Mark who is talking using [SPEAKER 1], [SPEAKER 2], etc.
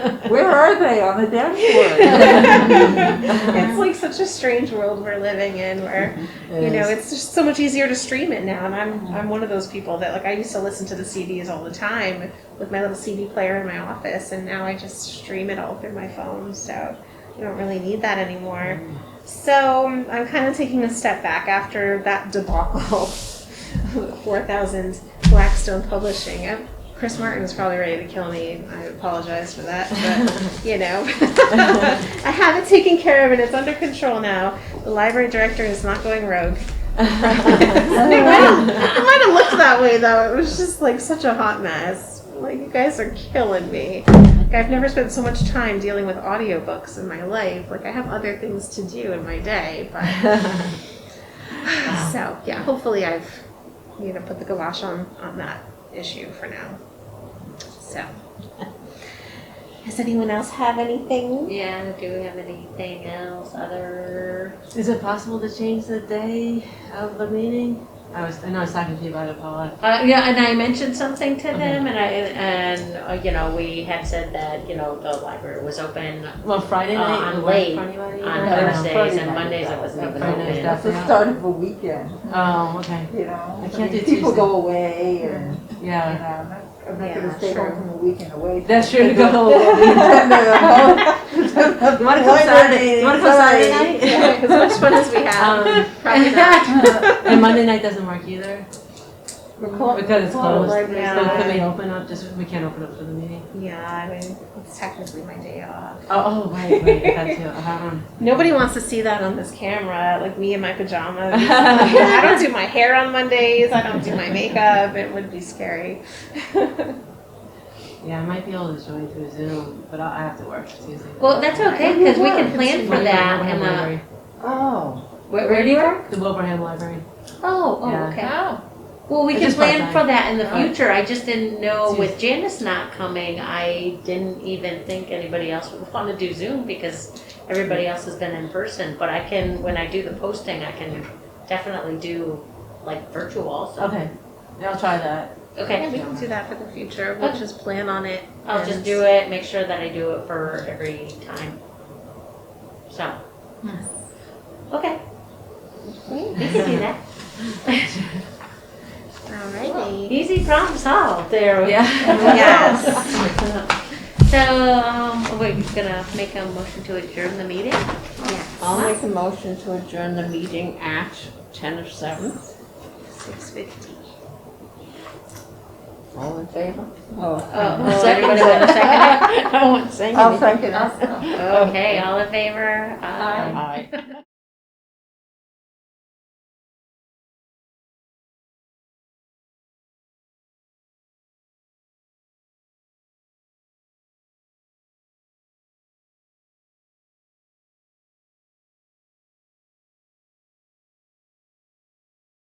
[SPEAKER 1] Where are they on the dashboard?
[SPEAKER 2] it's like such a strange world we're living in where you know it's just so much easier to stream it now and i'm i'm one of those people that like i used to listen to the cds all the time with my little cd player in my office and now i just stream it all through my phone so i don't really need that anymore so um, i'm kind of taking a step back after that debacle 4000 blackstone publishing i Chris Martin was probably ready to kill me. I apologize for that, but you know, I have it taken care of and it's under control now. The library director is not going rogue. it, might have, it might have looked that way though. It was just like such a hot mess. Like you guys are killing me. Like, I've never spent so much time dealing with audiobooks in my life. Like I have other things to do in my day, but so yeah. Hopefully, I've you know put the gouache on on that issue for now. So. Does anyone else have anything?
[SPEAKER 3] Yeah, do we have anything else other?
[SPEAKER 4] Is it possible to change the day of the meeting? I was, I know I was talking to you about it, Paula.
[SPEAKER 3] Uh, yeah, and I mentioned something to them and I, and, uh, you know, we had said that, you know, the library was open
[SPEAKER 4] Well, Friday
[SPEAKER 3] Uh,
[SPEAKER 4] night.
[SPEAKER 3] I'm
[SPEAKER 4] it was
[SPEAKER 3] late
[SPEAKER 4] Friday night,
[SPEAKER 3] on
[SPEAKER 4] I don't know.
[SPEAKER 3] Thursdays and Mondays it wasn't even
[SPEAKER 4] Friday night's
[SPEAKER 3] open.
[SPEAKER 1] It's the start of a weekend,
[SPEAKER 4] Oh, okay,
[SPEAKER 1] you know?
[SPEAKER 4] I can't
[SPEAKER 1] mean,
[SPEAKER 4] do
[SPEAKER 1] People
[SPEAKER 4] Tuesday.
[SPEAKER 1] go away and, you know,
[SPEAKER 4] yeah.
[SPEAKER 1] I'm not- I'm not
[SPEAKER 2] Yeah,
[SPEAKER 1] gonna stay
[SPEAKER 2] sure.
[SPEAKER 1] home from the weekend away.
[SPEAKER 4] That's
[SPEAKER 1] from-
[SPEAKER 4] true, go. You wanna come Saturday, you wanna come Saturday night?
[SPEAKER 2] Yeah, as much fun as we have.
[SPEAKER 4] Um,
[SPEAKER 2] Probably not.
[SPEAKER 4] And Monday night doesn't work either,
[SPEAKER 1] We're clo-
[SPEAKER 4] because it's closed.
[SPEAKER 1] Right
[SPEAKER 4] So
[SPEAKER 1] now.
[SPEAKER 2] Yeah.
[SPEAKER 4] can we open up, just, we can't open up for the meeting?
[SPEAKER 2] Yeah, I mean, it's technically my day off.
[SPEAKER 4] Oh, oh, right, right, that too, um,
[SPEAKER 2] Nobody wants to see that on this camera, like me in my pajamas. I don't do my hair on Mondays. I don't do my makeup. It would be scary.
[SPEAKER 4] yeah, I might be able to join through Zoom, but I'll, I have to work Tuesday. night.
[SPEAKER 3] Well, that's okay, cause we can plan for
[SPEAKER 4] Wilbraham
[SPEAKER 3] that and, uh,
[SPEAKER 4] Library.
[SPEAKER 1] Oh,
[SPEAKER 3] where, where do you work?
[SPEAKER 4] The Wilbraham Library.
[SPEAKER 3] Oh,
[SPEAKER 4] Yeah.
[SPEAKER 3] oh, okay. Well, we
[SPEAKER 4] It's
[SPEAKER 3] can
[SPEAKER 4] just
[SPEAKER 3] plan
[SPEAKER 4] part-time.
[SPEAKER 3] for that in the
[SPEAKER 4] Oh.
[SPEAKER 3] future, I just didn't know
[SPEAKER 4] It's
[SPEAKER 3] with Janice not coming, I didn't even think anybody else would wanna do Zoom because everybody else has been in person, but I can, when I do the posting, I can definitely do like virtual also.
[SPEAKER 4] Okay, yeah, I'll try that.
[SPEAKER 3] Okay.
[SPEAKER 2] Yeah, we can do that for the future. We'll just plan on it.
[SPEAKER 3] I'll just do it, make sure that I do it for every time. So. Okay. We can do that.
[SPEAKER 2] Alrighty.
[SPEAKER 3] Easy problem solved there.
[SPEAKER 4] Yeah.
[SPEAKER 2] Yes.
[SPEAKER 3] So, um, we're gonna make a motion to adjourn the meeting?
[SPEAKER 5] I'll make a motion to adjourn the meeting at ten of seven.
[SPEAKER 2] Six fifty.
[SPEAKER 5] All in favor?
[SPEAKER 1] oh,
[SPEAKER 3] Oh, everybody want a second?
[SPEAKER 5] I won't say
[SPEAKER 1] I'll
[SPEAKER 5] anything.
[SPEAKER 1] second it.
[SPEAKER 3] Okay, all in favor? Aye.
[SPEAKER 5] Aye.